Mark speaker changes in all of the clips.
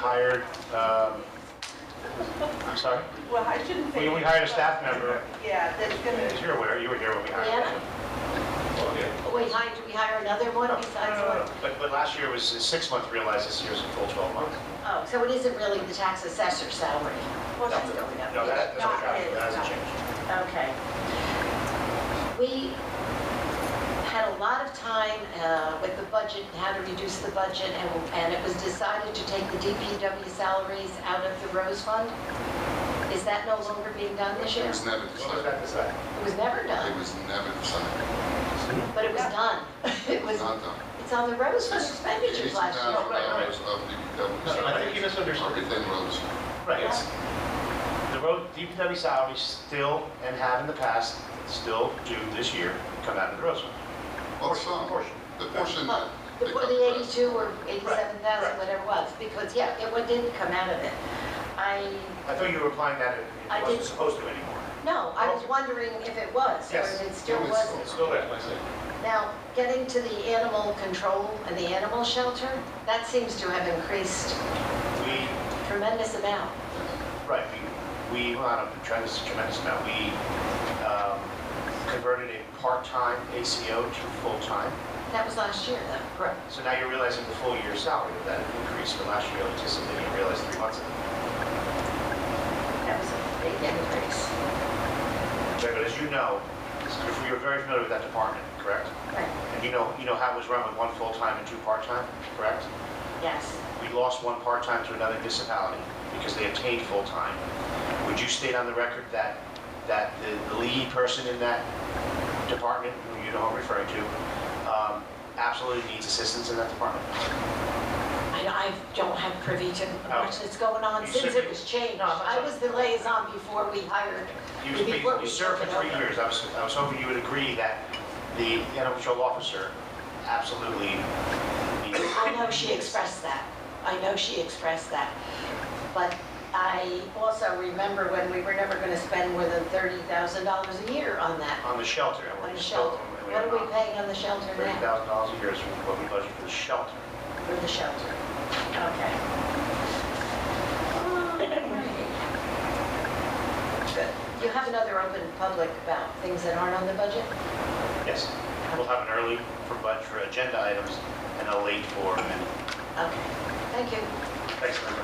Speaker 1: hired, um, I'm sorry,
Speaker 2: Well, I shouldn't
Speaker 1: we
Speaker 2: say.
Speaker 1: we hired a staff member,
Speaker 2: Yeah, that's
Speaker 1: as
Speaker 2: gonna,
Speaker 1: you're aware, you were here when we hired. her.
Speaker 3: Anna?
Speaker 1: Well, yeah.
Speaker 3: Wait, hi, do we hire another one
Speaker 1: No,
Speaker 3: besides
Speaker 1: no, no, no,
Speaker 3: one?
Speaker 1: no. But, but last year was a six-month realized, this year's a full 12 month.
Speaker 3: Oh, so it isn't really the tax assessor salary?
Speaker 2: Well,
Speaker 3: that's going up.
Speaker 1: No, that, that's
Speaker 3: Not
Speaker 1: not, that
Speaker 3: it,
Speaker 1: hasn't
Speaker 3: not it.
Speaker 1: changed.
Speaker 3: Okay. We had a lot of time uh, with the budget, and how to reduce the budget, and and it was decided to take the DPW salaries out of the Rose Fund. Is that no longer being done this
Speaker 4: It
Speaker 3: year?
Speaker 4: was never
Speaker 1: What was
Speaker 4: decided.
Speaker 1: that decided?
Speaker 3: It was never
Speaker 4: It
Speaker 3: done,
Speaker 4: was never decided.
Speaker 3: but it was done. It was,
Speaker 4: Not done.
Speaker 3: it's on the Rose Fund expenditures last
Speaker 1: Oh,
Speaker 3: year.
Speaker 1: right, right.
Speaker 4: $80,000 of DPW
Speaker 1: No, I think you
Speaker 4: salaries.
Speaker 1: misunderstood.
Speaker 4: Everything rose.
Speaker 1: Right, it's, the road, DPW salaries still, and have in the past, still do this year, come out of the road fund.
Speaker 4: Well, some,
Speaker 1: Portion.
Speaker 4: the portion that
Speaker 3: Well, The
Speaker 4: they cut the
Speaker 3: the
Speaker 4: rest.
Speaker 3: 82 or 87,000,
Speaker 1: right.
Speaker 3: whatever it was, because, yeah, it wa- didn't come out of it. I,
Speaker 1: I thought you were implying that it
Speaker 3: I
Speaker 1: it wasn't
Speaker 3: did.
Speaker 1: supposed to anymore.
Speaker 3: no, I was wondering if it was, or
Speaker 1: Yes.
Speaker 3: if it still
Speaker 4: It was
Speaker 3: wasn't.
Speaker 1: It's still there, like I said.
Speaker 3: Now, getting to the animal control and the animal shelter, that seems to have increased
Speaker 1: We
Speaker 3: tremendous amount.
Speaker 1: Right, we, we, on a tremendous, tremendous amount, we um, converted a part-time ACO to full-time.
Speaker 3: That was last year, though.
Speaker 1: Correct. So now you're realizing the full year salary of that increase for last year, anticipating you realized three months ago.
Speaker 3: That was a big increase.
Speaker 1: But as you know, if you're very familiar with that department, correct?
Speaker 3: Right,
Speaker 1: And you know, you know how it was run with one full-time and two part-time, correct?
Speaker 3: yes.
Speaker 1: We lost one part-time to another municipality because they obtained full-time. Would you state on the record that, that the- the lead person in that department, who you know I'm referring to, um, absolutely needs assistance in that department?
Speaker 3: I, I don't have privy to much that's going on
Speaker 1: You
Speaker 3: since
Speaker 1: should
Speaker 3: it
Speaker 1: be.
Speaker 3: was changed.
Speaker 1: No, I'm not
Speaker 3: I
Speaker 1: sure.
Speaker 3: was the liaison before we hired,
Speaker 1: You
Speaker 3: before
Speaker 1: you
Speaker 3: we
Speaker 1: served
Speaker 3: took
Speaker 1: for
Speaker 3: it
Speaker 1: three
Speaker 3: over.
Speaker 1: years, I was, I was hoping you would agree that the animal control officer absolutely needs.
Speaker 3: I know she expressed that. I know she expressed that. But I also remember when we were never going to spend more than $30,000 a year on that,
Speaker 1: On the shelter. and we're
Speaker 3: on the
Speaker 1: still-
Speaker 3: shelter.
Speaker 1: and
Speaker 3: What are
Speaker 1: not.
Speaker 3: we paying on the shelter now?
Speaker 1: $30,000 a year is what we budget for the shelter.
Speaker 3: For the shelter. Okay. You have another open public about things that aren't on the budget?
Speaker 1: Yes, we'll have an early for, but for agenda items and a late for, and
Speaker 3: Okay, thank you.
Speaker 1: thanks, Linda.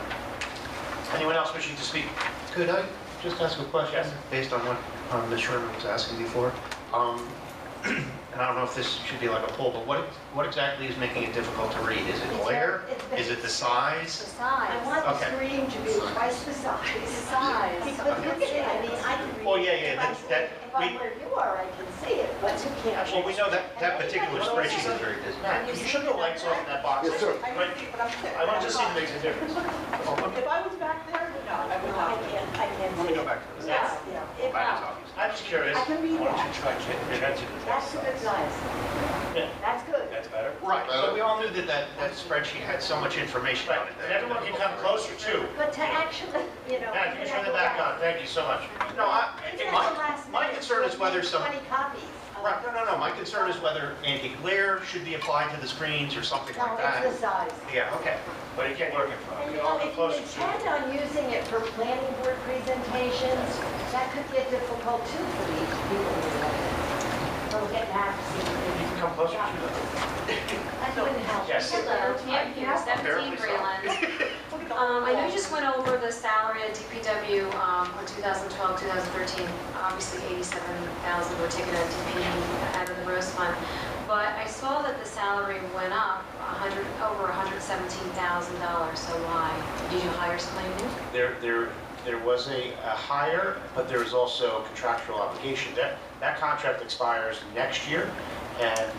Speaker 1: Anyone else wishing to speak?
Speaker 5: Could I just ask a question?
Speaker 1: Yes.
Speaker 5: Based on what um, Ms. Sherman was asking before? Um, And I don't know if this should be like a poll, but what, what exactly is making it difficult to read? Is it
Speaker 6: It's
Speaker 5: glare?
Speaker 6: very- it's
Speaker 5: Is it the
Speaker 6: The
Speaker 5: size?
Speaker 6: size.
Speaker 7: I want the
Speaker 5: Okay.
Speaker 7: screen to be twice the
Speaker 6: The
Speaker 7: size.
Speaker 6: size.
Speaker 7: Because you can see, I mean, I can read.
Speaker 5: Well, yeah, yeah,
Speaker 7: If
Speaker 5: that's-
Speaker 7: I'm-
Speaker 5: that-
Speaker 7: If I'm
Speaker 5: we-
Speaker 7: where you are, I can see it, but you can't.
Speaker 5: Well, we know that, that particular spreadsheet is very
Speaker 1: Matt,
Speaker 5: busy.
Speaker 1: can you shut the lights off in that box?
Speaker 4: Yes, sir.
Speaker 2: I
Speaker 1: Right.
Speaker 2: don't see, but I'm sitting.
Speaker 1: I want to see if it makes a difference.
Speaker 2: If I was back there, no, I would
Speaker 7: I
Speaker 2: not.
Speaker 7: can't, I can't see it.
Speaker 1: Let me go back to this.
Speaker 7: Yeah,
Speaker 1: Well,
Speaker 7: yeah.
Speaker 1: Matt is obvious. I'm just curious.
Speaker 7: I can read that. That's a good size.
Speaker 1: Yeah.
Speaker 7: That's good.
Speaker 1: That's better.
Speaker 5: Right, but we all knew that that, that spreadsheet had so much information
Speaker 1: Uh, Right,
Speaker 5: on it.
Speaker 1: and everyone can come closer too.
Speaker 7: But to actually, you know.
Speaker 1: Matt, you can turn the back on, thank you so much.
Speaker 5: No, I,
Speaker 7: It's
Speaker 5: it-
Speaker 7: at the
Speaker 5: my,
Speaker 7: last
Speaker 5: my
Speaker 7: minute.
Speaker 5: concern is
Speaker 7: We'll
Speaker 5: whether
Speaker 7: need
Speaker 5: some,
Speaker 7: Twenty copies. of-
Speaker 5: right, no, no, no, my concern is whether anti-glare should be applied to the screens or something
Speaker 7: No,
Speaker 5: like
Speaker 7: it's
Speaker 5: that.
Speaker 7: the size.
Speaker 5: Yeah, okay.
Speaker 1: But it can't work in front.
Speaker 7: And
Speaker 1: of
Speaker 7: you
Speaker 1: you.
Speaker 7: know,
Speaker 1: All the
Speaker 7: if you
Speaker 1: closer to.
Speaker 7: intend on using it for planning board presentations, that could get difficult too for these people. From getting
Speaker 1: You
Speaker 7: access.
Speaker 1: can come closer to them.
Speaker 7: That wouldn't help.
Speaker 1: Yes.
Speaker 7: Hello.
Speaker 6: Hello, Pam here,
Speaker 1: Apparently
Speaker 6: 17
Speaker 1: so.
Speaker 6: Breland. Um, I know you just went over the salary at DPW um, on 2012, 2013. Obviously, 87,000 were taken out of DPW out of the Rose Fund. But I saw that the salary went up 100, over $117,000, so why? Did you hire somebody new?
Speaker 1: There, there, there was a, a hire, but there was also contractual obligation. That, that contract expires next year, and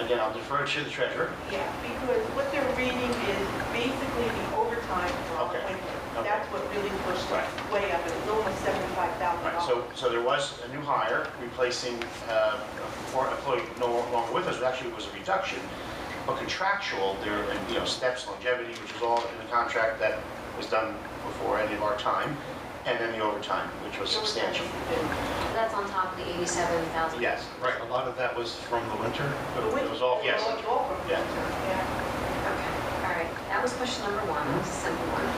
Speaker 1: again, I'll defer to the treasurer.
Speaker 2: Yeah, because what they're reading is basically the overtime for
Speaker 1: Okay.
Speaker 2: appointment.
Speaker 1: Okay.
Speaker 2: That's what really pushed
Speaker 1: Right.
Speaker 2: it way up, it was almost seventy-five thousand
Speaker 1: Right,
Speaker 2: dollars.
Speaker 1: so, so there was a new hire replacing uh, a former employee no longer with us, actually it was a reduction, but contractual, there, and, you know, steps, longevity, which is all in the contract that was done before any of our time, and then the overtime, which was substantial.
Speaker 6: That's on top of the 87,000.
Speaker 1: Yes,
Speaker 5: Right, a lot of that was from the winter.
Speaker 1: but it was all, yes,
Speaker 2: It was all from-
Speaker 1: Yeah.
Speaker 2: Yeah.
Speaker 6: Okay, all right. That was question number one, It was a simple one.